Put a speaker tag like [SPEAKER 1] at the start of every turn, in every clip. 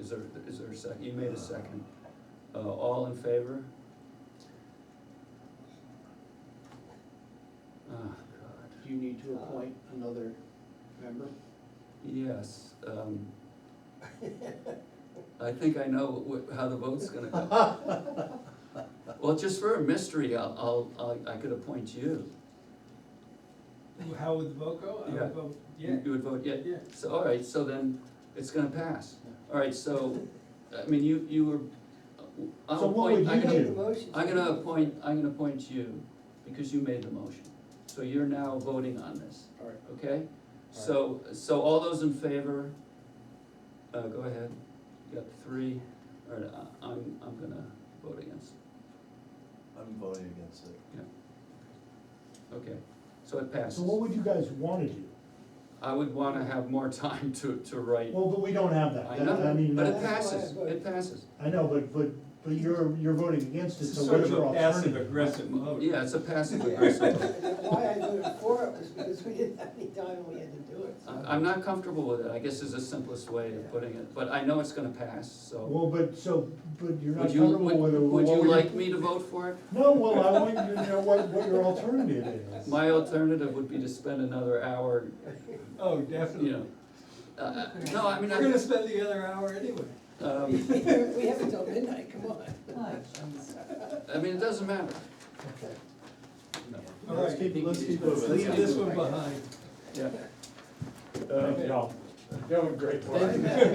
[SPEAKER 1] Is there, is there a sec, you made a second. Uh, all in favor? Oh, God.
[SPEAKER 2] Do you need
[SPEAKER 3] Uh,
[SPEAKER 2] to appoint another member?
[SPEAKER 1] Yes, um, I think I know wh- how the vote's gonna go. Well, just for a mystery, I'll, I'll, I I could appoint you.
[SPEAKER 4] How would the vote go? I
[SPEAKER 1] Yeah.
[SPEAKER 4] would vote yeah.
[SPEAKER 1] You you would vote yet?
[SPEAKER 4] Yeah.
[SPEAKER 1] So, all right, so then it's gonna pass. All right, so, I mean, you, you were, uh, I'll
[SPEAKER 2] So what
[SPEAKER 1] appoint,
[SPEAKER 2] would
[SPEAKER 1] I'm
[SPEAKER 2] you
[SPEAKER 1] gonna,
[SPEAKER 2] do?
[SPEAKER 1] I'm gonna appoint, I'm gonna appoint you because you made the motion. So you're now voting on this,
[SPEAKER 2] All right,
[SPEAKER 1] okay? So, so all those in favor, uh, go ahead, you got three, all right, I- I'm, I'm gonna vote against,
[SPEAKER 5] I'm voting against it.
[SPEAKER 1] okay, so it passes.
[SPEAKER 6] So what would you guys wanna do?
[SPEAKER 1] I would wanna have more time to, to write,
[SPEAKER 6] Well, but we don't have that,
[SPEAKER 1] I
[SPEAKER 6] That- I
[SPEAKER 1] know,
[SPEAKER 6] mean,
[SPEAKER 1] but it
[SPEAKER 6] that's-
[SPEAKER 1] passes, it passes.
[SPEAKER 6] I know, but, but, but you're, you're voting against it,
[SPEAKER 4] It's
[SPEAKER 6] so
[SPEAKER 4] sort
[SPEAKER 6] what's
[SPEAKER 4] of
[SPEAKER 6] your
[SPEAKER 4] a passive
[SPEAKER 6] alternative?
[SPEAKER 4] aggressive vote.
[SPEAKER 1] Yeah, it's a passive
[SPEAKER 7] Yeah.
[SPEAKER 1] aggressive vote.
[SPEAKER 7] Why I voted for it was because we didn't have any time and we had to do it. so.
[SPEAKER 1] I- I'm not comfortable with it, I guess is the simplest way of putting it, but I know it's gonna pass, so.
[SPEAKER 6] Well, but, so, but you're not
[SPEAKER 1] Would you,
[SPEAKER 6] comfortable with
[SPEAKER 1] would,
[SPEAKER 6] it.
[SPEAKER 1] would
[SPEAKER 6] what
[SPEAKER 1] you
[SPEAKER 6] your-
[SPEAKER 1] like me to vote for it?
[SPEAKER 6] No, well, I want you to know what, what your alternative is.
[SPEAKER 1] My alternative would be to spend another hour,
[SPEAKER 4] Oh, definitely.
[SPEAKER 1] you know. Uh, no, I mean,
[SPEAKER 4] We're gonna
[SPEAKER 1] I,
[SPEAKER 4] spend the other hour anyway.
[SPEAKER 1] um,
[SPEAKER 7] We have until midnight, come on.
[SPEAKER 1] I mean, it doesn't matter.
[SPEAKER 6] Okay.
[SPEAKER 1] No.
[SPEAKER 4] All right,
[SPEAKER 5] Let's keep, let's keep
[SPEAKER 4] let's Uh,
[SPEAKER 5] moving.
[SPEAKER 4] leave this one behind.
[SPEAKER 1] Yeah.
[SPEAKER 6] Thank
[SPEAKER 1] Uh,
[SPEAKER 6] y'all.
[SPEAKER 5] Doing great
[SPEAKER 7] Thanks, Matt.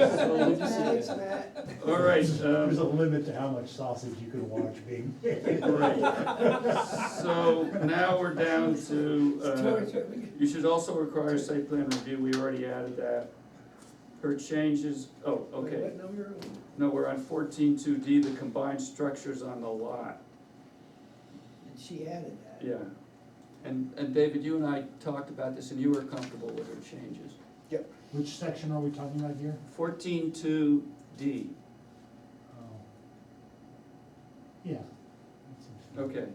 [SPEAKER 7] Thanks, Matt.
[SPEAKER 1] All right,
[SPEAKER 6] There's a
[SPEAKER 1] um,
[SPEAKER 6] limit to how much sausage you can watch being made.
[SPEAKER 1] all right. So now we're down to, uh,
[SPEAKER 7] George, what we got?
[SPEAKER 1] You should also require a site plan review, we already added that. Her changes, oh, okay,
[SPEAKER 7] What number? are we-
[SPEAKER 1] no, we're on fourteen two D, the combined structures on the lot,
[SPEAKER 7] And she added that.
[SPEAKER 1] yeah. And, and David, you and I talked about this and you were comfortable with her changes.
[SPEAKER 6] Which section are we talking about here?
[SPEAKER 1] Fourteen two D,
[SPEAKER 6] Oh. Yeah. That's interesting.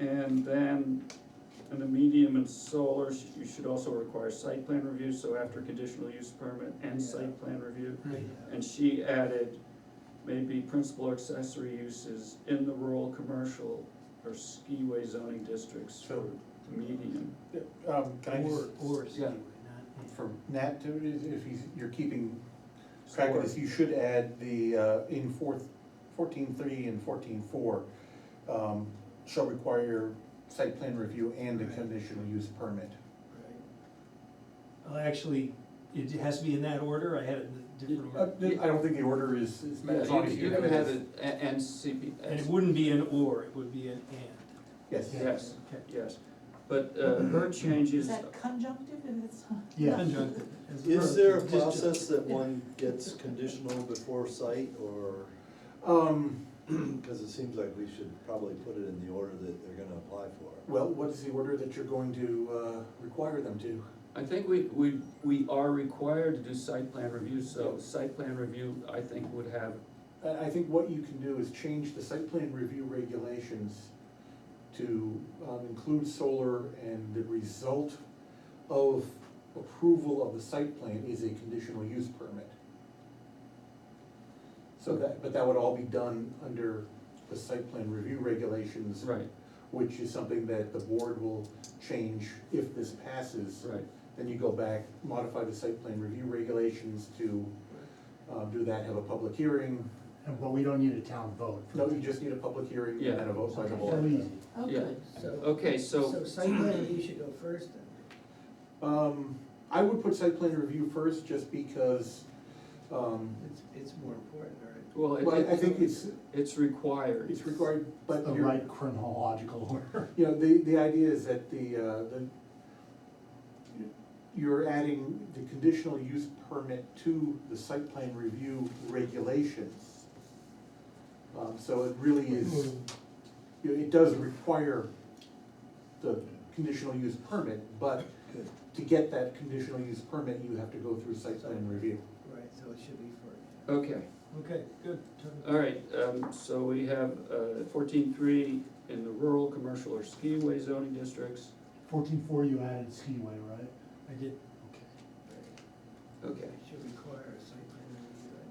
[SPEAKER 1] okay. And then, in the medium and solar, sh- you should also require site plan review, so after conditional use permit and site plan review. And she added, maybe principal accessory uses in the rural, commercial, or skiway zoning districts for the medium.
[SPEAKER 5] Um, can I just,
[SPEAKER 2] Or, or
[SPEAKER 1] Yeah.
[SPEAKER 2] Steve, not.
[SPEAKER 5] for Nat, too, is- if he's, you're keeping track of this, you should add the, uh, in fourth, fourteen three and fourteen four, um, shall require site plan review and a
[SPEAKER 2] Right.
[SPEAKER 5] conditional use permit.
[SPEAKER 4] Well, actually, it has to be in that order, I had it in a different
[SPEAKER 5] Uh,
[SPEAKER 4] order.
[SPEAKER 5] I don't think the order is, is.
[SPEAKER 1] Yeah,
[SPEAKER 5] as
[SPEAKER 1] you-
[SPEAKER 5] long as
[SPEAKER 1] you
[SPEAKER 5] have
[SPEAKER 1] can
[SPEAKER 5] it
[SPEAKER 1] have
[SPEAKER 5] as-
[SPEAKER 1] it, a- and CP,
[SPEAKER 4] And it wouldn't be an or, it would be an and.
[SPEAKER 5] Yes.
[SPEAKER 1] yes,
[SPEAKER 4] Okay.
[SPEAKER 1] yes. But uh, her changes,
[SPEAKER 8] conjunctive if it's not?
[SPEAKER 6] Yeah.
[SPEAKER 4] Conjunctive. as
[SPEAKER 3] Is there a
[SPEAKER 4] verb, just-
[SPEAKER 3] process that one gets conditional before site or,
[SPEAKER 5] Um,
[SPEAKER 3] because it seems like we should probably put it in the order that they're gonna apply for.
[SPEAKER 5] well, what is the order that you're going to, uh, require them to?
[SPEAKER 1] I think we, we, we are required to do site plan review, so site plan review, I think, would have,
[SPEAKER 5] I, I think what you can do is change the site plan review regulations to um, include solar and the result of approval of the site plan is a conditional use permit. So that, but that would all be done under the site plan review regulations,
[SPEAKER 1] right,
[SPEAKER 5] which is something that the board will change if this passes.
[SPEAKER 1] right.
[SPEAKER 5] Then you go back, modify the site plan review regulations to, um, do that, have a public hearing,
[SPEAKER 6] And, but we don't need a town vote. for
[SPEAKER 5] no,
[SPEAKER 6] that.
[SPEAKER 5] you just need a public hearing
[SPEAKER 1] Yeah.
[SPEAKER 5] and then a vote by the
[SPEAKER 6] So
[SPEAKER 5] board.
[SPEAKER 6] easy.
[SPEAKER 8] Oh,
[SPEAKER 1] Yeah.
[SPEAKER 8] good.
[SPEAKER 7] So,
[SPEAKER 1] Okay,
[SPEAKER 7] so
[SPEAKER 1] so,
[SPEAKER 7] site plan review should go first then.
[SPEAKER 5] Um, I would put site plan review first, just because, um,
[SPEAKER 7] It's, it's more important, all right?
[SPEAKER 1] well,
[SPEAKER 5] well, I- I
[SPEAKER 1] it,
[SPEAKER 5] think it's,
[SPEAKER 1] it's required.
[SPEAKER 5] it's required, but
[SPEAKER 6] The
[SPEAKER 5] you're,
[SPEAKER 6] Oh, right chronological order.
[SPEAKER 5] you know, the, the idea is that the, uh, the, you're adding the conditional use permit to the site plan review regulations. Um, so it really
[SPEAKER 4] Mm-hmm.
[SPEAKER 5] is, you know, it does require the conditional use permit, but
[SPEAKER 3] Good.
[SPEAKER 5] to get that conditional use permit, you have to go through site plan review.
[SPEAKER 7] Right, so it should be first.
[SPEAKER 1] Okay.
[SPEAKER 4] Okay, good.
[SPEAKER 7] Uh,
[SPEAKER 1] All right, um, so we have, uh, fourteen-three in the rural, commercial, or skiway zoning districts.
[SPEAKER 6] Fourteen four, you added skiway, right?
[SPEAKER 4] I did.
[SPEAKER 6] Okay.
[SPEAKER 7] Right.
[SPEAKER 1] Okay,
[SPEAKER 7] Should require